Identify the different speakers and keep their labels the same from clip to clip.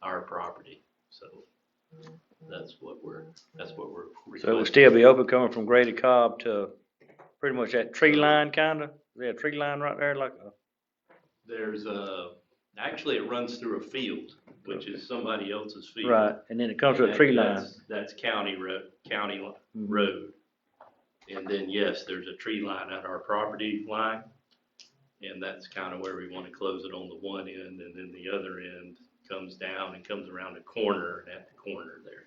Speaker 1: property, so that's what we're, that's what we're
Speaker 2: So it would
Speaker 1: requesting.
Speaker 2: still be open coming from Grady Cobb to pretty much that tree line kinda? Is there a tree line right there like, a-
Speaker 1: There's a, actually it runs through a field, which is somebody else's field.
Speaker 2: right, and then it comes to a
Speaker 1: That-
Speaker 2: tree line?
Speaker 1: that's- That's county road, county li-
Speaker 2: Mhm.
Speaker 1: road. And then, yes, there's a tree line at our property line. And that's kind of where we want to close it on the one end and then the other end comes down and comes around the corner and at the corner there.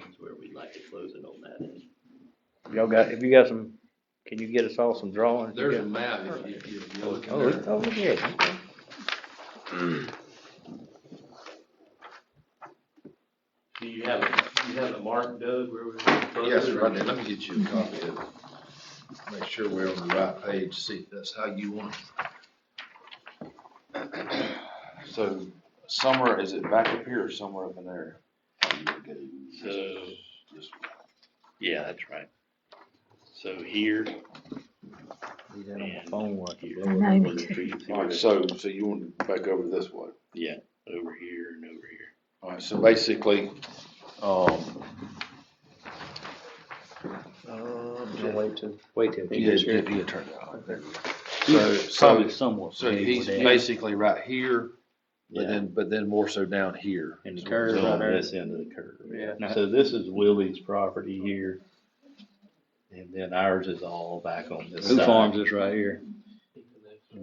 Speaker 1: That's where we'd like to close it on that end.
Speaker 2: Y'all got, if you got some, can you get us all some drawings? You
Speaker 3: There's a
Speaker 2: got-
Speaker 3: map if you, if you look
Speaker 2: Oh,
Speaker 3: in
Speaker 2: it's
Speaker 3: there.
Speaker 2: over here. okay.
Speaker 1: Do you have, a- you have a mark, Doug, where we? would close
Speaker 3: Yes,
Speaker 1: it?
Speaker 3: sir, I did. Let me get you a copy of it. Make sure we're on the right page, see if that's how you want it.
Speaker 4: So somewhere, is it back up here or somewhere up in there?
Speaker 1: So, yeah, that's right. So here.
Speaker 2: He's in on my phone where I can
Speaker 1: here,
Speaker 2: blow it.
Speaker 5: know, me
Speaker 1: where the
Speaker 5: too.
Speaker 1: trees
Speaker 4: Alright,
Speaker 1: are.
Speaker 4: so, so you want to back over this way?
Speaker 1: Yeah, over here and over here.
Speaker 4: Alright, so basically, um,
Speaker 2: Wait till, wait till. he
Speaker 4: yeah,
Speaker 2: gets here.
Speaker 4: yeah, yeah, turn that on, there you go. So, so,
Speaker 2: Probably somewhat.
Speaker 4: so
Speaker 2: familiar
Speaker 4: he's
Speaker 2: with that.
Speaker 4: basically right here, but
Speaker 1: Yeah.
Speaker 4: then, but then more so down here.
Speaker 2: And the
Speaker 4: So
Speaker 2: curve
Speaker 4: it's
Speaker 2: right
Speaker 4: on
Speaker 2: there.
Speaker 4: this.
Speaker 1: This end of the curve.
Speaker 2: Yeah.
Speaker 1: So this is Willie's property here. And then ours is all back on this
Speaker 2: Who farms
Speaker 1: side.
Speaker 2: this right here?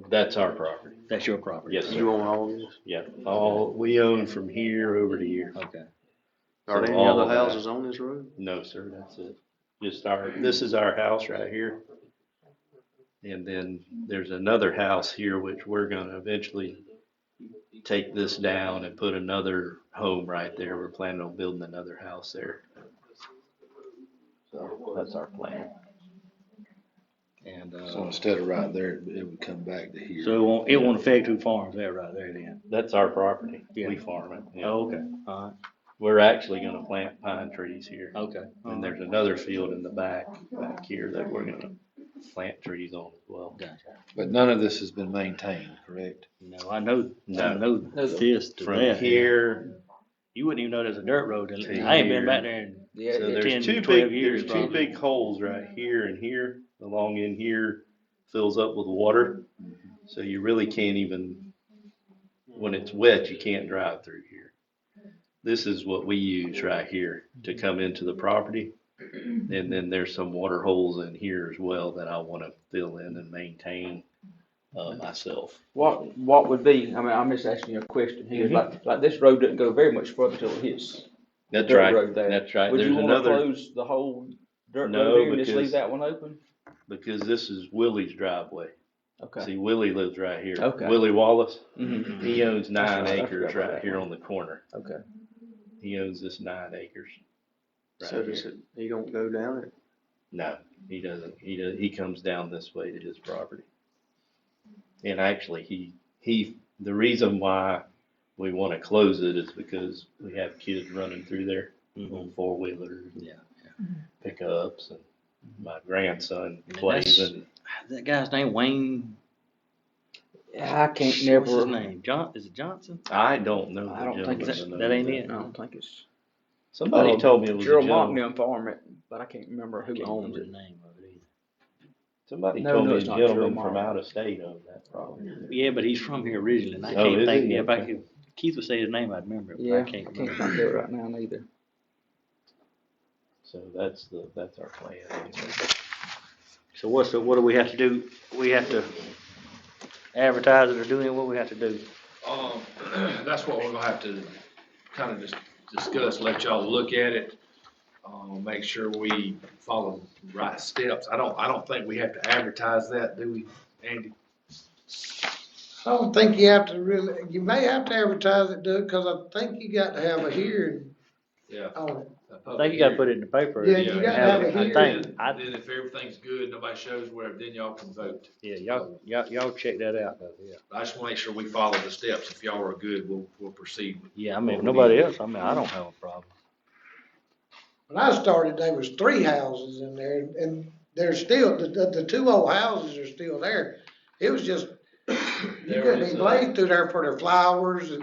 Speaker 1: That's our property.
Speaker 2: That's your property?
Speaker 1: Yes, sir.
Speaker 4: You own all of this?
Speaker 1: Yeah, all, we own from here over to here.
Speaker 2: Okay.
Speaker 1: Are
Speaker 6: Are
Speaker 1: there any
Speaker 6: there any
Speaker 1: All other
Speaker 6: other
Speaker 1: of that. houses
Speaker 6: houses on this road?
Speaker 1: No, sir, that's it. Just our, this is our house right here. And then there's another house here which we're gonna eventually take this down and put another home right there. We're planning on building another house there. So that's our plan. And,
Speaker 4: So
Speaker 1: uh,
Speaker 4: instead of right there, it it would come back to here.
Speaker 2: So it won't, it won't affect who farms that right there then?
Speaker 1: that's our property. We
Speaker 2: Yeah.
Speaker 1: farm it. yeah.
Speaker 2: Oh, okay, alright,
Speaker 1: We're actually gonna plant pine trees here.
Speaker 2: okay.
Speaker 1: And there's
Speaker 2: Oh.
Speaker 1: another field in the back, back here that we're gonna plant trees on as well.
Speaker 4: But none of this has been maintained, correct?
Speaker 2: No, I know, I
Speaker 1: No.
Speaker 2: know this to
Speaker 1: From
Speaker 2: that.
Speaker 1: here,
Speaker 2: You wouldn't even know there's a dirt road. till-
Speaker 1: To
Speaker 2: I ain't been
Speaker 1: here.
Speaker 2: back there in
Speaker 1: so
Speaker 2: Ten,
Speaker 1: there's two
Speaker 2: 12
Speaker 1: big,
Speaker 2: years
Speaker 1: there's two
Speaker 2: probably.
Speaker 1: big holes right here and here. The long end here fills up with water. So you really can't even, when it's wet, you can't drive through here. This is what we use right here to come into the property. And then there's some water holes in here as well that I wanna fill in and maintain, uh, myself.
Speaker 6: What, what would be, I mean, I'm just asking you a question here,
Speaker 1: Mhm.
Speaker 6: like, like this road doesn't go very much further till it hits.
Speaker 1: That's
Speaker 6: dirt
Speaker 1: right,
Speaker 6: road there.
Speaker 1: that's right.
Speaker 6: Would
Speaker 1: There's
Speaker 6: you wanna
Speaker 1: another.
Speaker 6: close the whole dirt
Speaker 1: No,
Speaker 6: road here and just
Speaker 1: because-
Speaker 6: leave that one open?
Speaker 1: because this is Willie's driveway.
Speaker 6: Okay.
Speaker 1: See, Willie lives right here.
Speaker 6: Okay.
Speaker 1: Willie Wallace,
Speaker 6: Mhm.
Speaker 1: he owns nine
Speaker 6: That's right, I
Speaker 1: acres
Speaker 6: forgot about
Speaker 1: right
Speaker 6: that
Speaker 1: here on the corner.
Speaker 6: Okay.
Speaker 1: He owns this nine acres. right
Speaker 6: So does
Speaker 1: here.
Speaker 6: it, you don't go down it?
Speaker 1: No, he doesn't. He does, he comes down this way to his property. And actually, he, he, the reason why we wanna close it is because we have kids running through there on four wheelers.
Speaker 2: Yeah,
Speaker 1: Pickups and my grandson
Speaker 2: And
Speaker 1: plays
Speaker 2: that's-
Speaker 1: and
Speaker 2: Ah, That guy's name Wayne.
Speaker 6: I can't
Speaker 2: What's his
Speaker 6: never,
Speaker 2: name? John, is it Johnson?
Speaker 1: I don't know. the
Speaker 6: I don't think
Speaker 1: gentleman's
Speaker 2: that-
Speaker 1: name,
Speaker 2: that ain't
Speaker 1: but-
Speaker 2: it.
Speaker 6: I don't think it's,
Speaker 1: Somebody
Speaker 6: Um,
Speaker 1: told me it was a
Speaker 6: Gerald
Speaker 1: gentleman.
Speaker 6: Mockney farm it, but I can't remember who
Speaker 2: Can't
Speaker 6: owns
Speaker 2: remember
Speaker 6: it.
Speaker 2: the name of it either.
Speaker 1: Somebody
Speaker 6: No,
Speaker 1: told
Speaker 6: no,
Speaker 1: me a
Speaker 6: it's not Gerald
Speaker 1: gentleman from
Speaker 6: Martin.
Speaker 1: out of state owned that property.
Speaker 2: Yeah, but he's from here originally, and I
Speaker 1: Oh,
Speaker 2: can't
Speaker 1: is
Speaker 2: think,
Speaker 1: he?
Speaker 2: if I could, Keith would say his name, I'd remember it, but
Speaker 6: Yeah,
Speaker 2: I
Speaker 6: I
Speaker 2: can't
Speaker 6: can't
Speaker 2: remember.
Speaker 6: think of it right now neither.
Speaker 1: So that's the, that's our plan.
Speaker 2: So what's the, what do we have to do? We have to advertise it or do anything, what we have to do?
Speaker 3: Um, that's what we're gonna have to kind of just discuss, let y'all look at it. Uh, make sure we follow the right steps. I don't, I don't think we have to advertise that, do we, Andy?
Speaker 7: I don't think you have to really, you may have to advertise it, Doug, cause I think you got to have a hearing
Speaker 3: Yeah.
Speaker 7: on it.
Speaker 2: I think you gotta put it in the paper.
Speaker 7: Yeah, you gotta have a
Speaker 2: I
Speaker 7: hearing.
Speaker 2: think, I,
Speaker 3: Then if everything's good, nobody shows where, then y'all can vote.
Speaker 2: yeah, y'all, y'all, y'all check that out, though, yeah.
Speaker 3: I just wanna make sure we follow the steps. If y'all are good, we'll, we'll proceed with
Speaker 2: Yeah, I mean, if nobody else, I mean, I don't have a problem.
Speaker 7: When I started, there was three houses in there and there's still, the, the, the two old houses are still there. It was just, you
Speaker 3: There
Speaker 7: couldn't
Speaker 3: is,
Speaker 7: even
Speaker 3: uh,
Speaker 7: blaze through there for their flowers and